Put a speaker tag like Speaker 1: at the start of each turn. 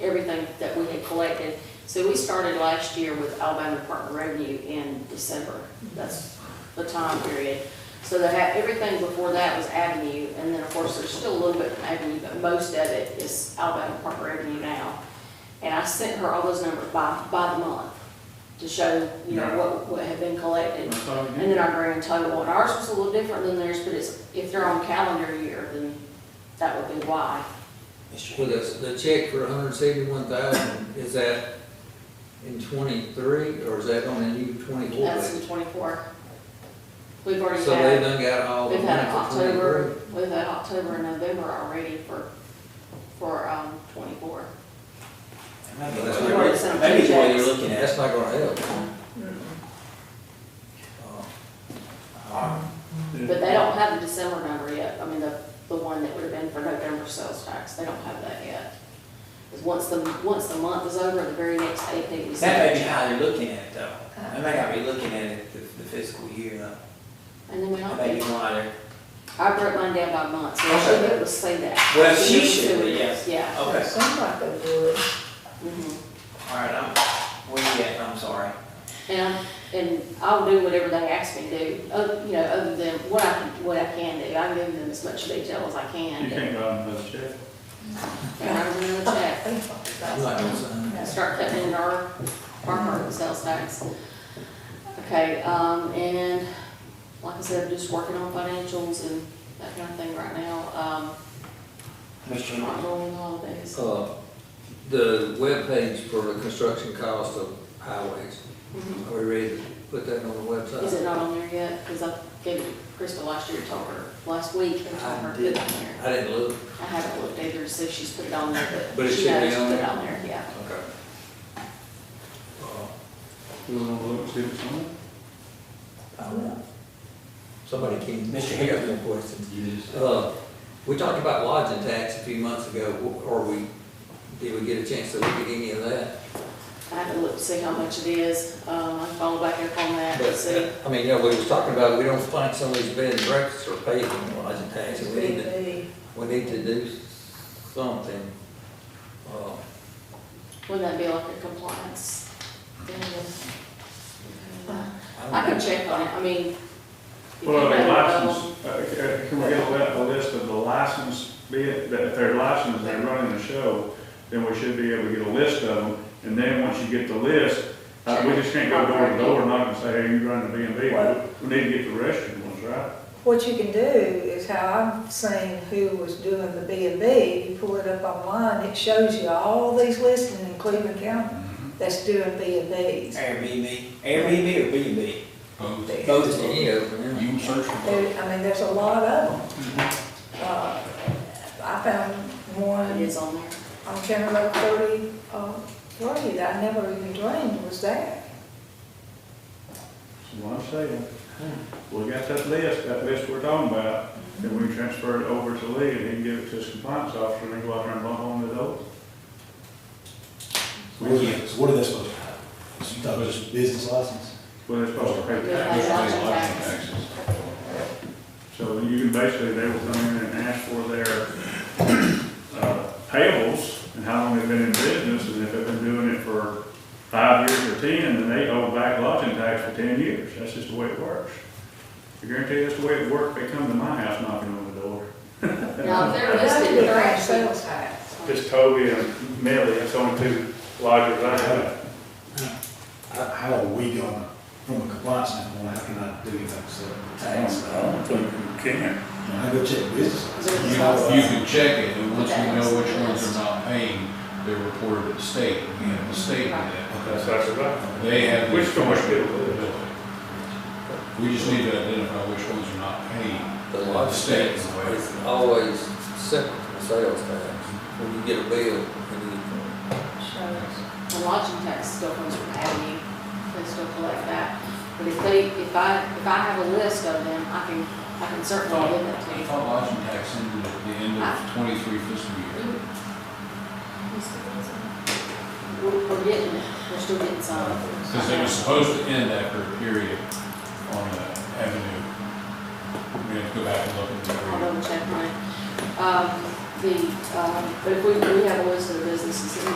Speaker 1: everything that we had collected. So we started last year with Alabama Department of Revenue in December. That's the time period. So they had, everything before that was Avenue, and then of course, there's still a little bit in Avenue, but most of it is Alabama Department of Revenue now. And I sent her all those numbers by, by the month to show, you know, what, what had been collected.
Speaker 2: That's all you
Speaker 1: And
Speaker 2: need.
Speaker 1: then our grand total, and ours was a little different than theirs, but it's, if they're on calendar year, then that would be why.
Speaker 3: Well, the, the check for hundred and seventy-one thousand, is that in twenty-three, or is that on a new twenty-four
Speaker 1: That's
Speaker 3: budget?
Speaker 1: in twenty-four. We've already
Speaker 3: So they
Speaker 1: had,
Speaker 3: done got all the
Speaker 1: we've had
Speaker 3: money for twenty-three?
Speaker 1: October, we've had October and November already for, for, um, twenty-four.
Speaker 3: That's
Speaker 1: We've already
Speaker 3: like-
Speaker 1: sent them
Speaker 4: Maybe
Speaker 1: two
Speaker 4: it's what you're
Speaker 1: checks.
Speaker 4: looking at.
Speaker 3: That's not gonna help. Uh,
Speaker 1: But they don't have the December number yet, I mean, the, the one that would have been for November sales tax, they don't have that yet. Because once the, once the month is over, the very next day, they receive.
Speaker 4: That may be how they're looking at it though. They may not be looking at it the the fiscal year though.
Speaker 1: And then we don't.
Speaker 4: That may be why they're
Speaker 1: I broke mine down by month, so I should be able to say that.
Speaker 4: Well, she should be, yes.
Speaker 1: Yeah.
Speaker 4: Okay,
Speaker 5: Somebody would.
Speaker 1: mhm.
Speaker 4: all right, I'm, where you at? I'm sorry.
Speaker 1: And, I'm- and I'll do whatever they ask me to do, oth- you know, other than what I, can- what I can do. I give them as much detail as I
Speaker 2: You
Speaker 1: can.
Speaker 2: can't go out and check.
Speaker 1: And I'm gonna check,
Speaker 3: I'm not gonna sign it.
Speaker 1: and start cutting into our, our current sales tax. Okay, um, and like I said, just working on financials and that kind of thing right now, um,
Speaker 4: Mr.
Speaker 1: not going holidays.
Speaker 3: Uh, the webpage for the construction cost of highways,
Speaker 1: Mhm.
Speaker 3: are we ready to put that on the
Speaker 1: Is it
Speaker 3: website?
Speaker 1: not on there yet? Because I gave it to Crystal last year, told her last week, and told her to put it on there.
Speaker 3: I didn't look.
Speaker 1: I haven't looked either to see if she's put it on there,
Speaker 3: But
Speaker 1: but
Speaker 3: it
Speaker 1: she
Speaker 3: should be
Speaker 1: knows to
Speaker 3: on
Speaker 1: put it
Speaker 3: there.
Speaker 1: on there, yeah.
Speaker 3: Okay. Uh,
Speaker 2: You wanna look, and see what's on it?
Speaker 3: I don't know. Somebody came,
Speaker 4: Mr.
Speaker 3: Mr.
Speaker 4: Hill.
Speaker 3: Harrison, question. Uh, we talked about lodging tax a few months ago, or we, did we get a chance to look at any of that?
Speaker 1: I haven't looked to see how much it is, um, I followed back up on that, to see.
Speaker 3: But, I mean, yeah, we was talking about, we don't find some of these bed and breakfasts are paid in lodging tax, and we need to, we need to do something. Uh,
Speaker 1: Wouldn't that be like a compliance? thing?
Speaker 3: don't
Speaker 1: I
Speaker 3: know.
Speaker 1: can check on it, I mean. you
Speaker 2: Well,
Speaker 1: can
Speaker 2: the
Speaker 1: have it on-
Speaker 2: license, uh, uh, can we get a a list of the license, be it, that if they're licensed, they're running the show, then we should be able to get a list of them, and then once you get the list, uh, we just can't go door to door and knock and say, hey, you run the B and
Speaker 5: Well-
Speaker 2: B, we need to get the rest of the ones, right?
Speaker 5: What you can do is how I've seen who was doing the B and B, you pull it up online, it shows you all these listed in Cleveland County that's doing B and Bs.
Speaker 4: Airbnb, Airbnb or B and B?
Speaker 5: There-
Speaker 4: Both of them.
Speaker 3: Any of them, yeah.
Speaker 6: You can search for
Speaker 5: I mean, there's a lot of them. Uh, I found
Speaker 1: um, It
Speaker 5: one
Speaker 1: is on there.
Speaker 5: on County Road thirty, uh, three that I never even dreamed was there.
Speaker 2: That's what I'm saying. We got that list, that list we're talking about, and we transfer it over to Lee, and he can give it to his compliance officer, and he go out there and bump on the doors.
Speaker 6: What are they, so what are they supposed to have? Is you thought it was just business license?
Speaker 2: Well, they're supposed to pay the
Speaker 1: Yeah.
Speaker 2: tax.
Speaker 1: Business license.
Speaker 6: Taxes.
Speaker 2: So you can basically, they will come in and ask for their uh, payables and how long they've been in business, and if they've been doing it for five years or ten, then they owe back lodging tax for ten years. That's just the way it works. I guarantee you, that's the way it worked. They come to my house knocking on the door.
Speaker 1: Now, if they're
Speaker 5: That's
Speaker 1: listed,
Speaker 5: the
Speaker 1: they're
Speaker 5: right
Speaker 1: actually.
Speaker 5: sales tax.
Speaker 2: Just Toby and Millie, that's the only two lodgers I have.
Speaker 6: How, how are we gonna, from a compliance standpoint, how can I do anything except tax?
Speaker 2: think you can.
Speaker 6: I go check business.
Speaker 1: Business
Speaker 7: You,
Speaker 1: license.
Speaker 7: you can check it, and once we know which ones are not paying, they're reported to the state, you know, the state,
Speaker 2: That's,
Speaker 7: that.
Speaker 2: that's right.
Speaker 7: they have. the
Speaker 2: Which ones do?
Speaker 7: We just need to identify which ones are not paying.
Speaker 3: The lodging tax
Speaker 7: Stay.
Speaker 3: is always separate from sales tax. When you get a bill, you
Speaker 5: Shows.
Speaker 1: The lodging tax still comes from Avenue, they still collect that. But if they, if I, if I have a list of them, I can, I can certainly give that to
Speaker 7: I
Speaker 1: you.
Speaker 7: thought lodging tax ended at the end of twenty-three fiscal year.
Speaker 1: We're, we're getting, it. we're still getting some.
Speaker 7: Because it was supposed to end after a period on the avenue. We have to go back and look at the
Speaker 1: I'll
Speaker 7: period.
Speaker 1: double check mine. Um, the, um, but if we, we have a list of the businesses that we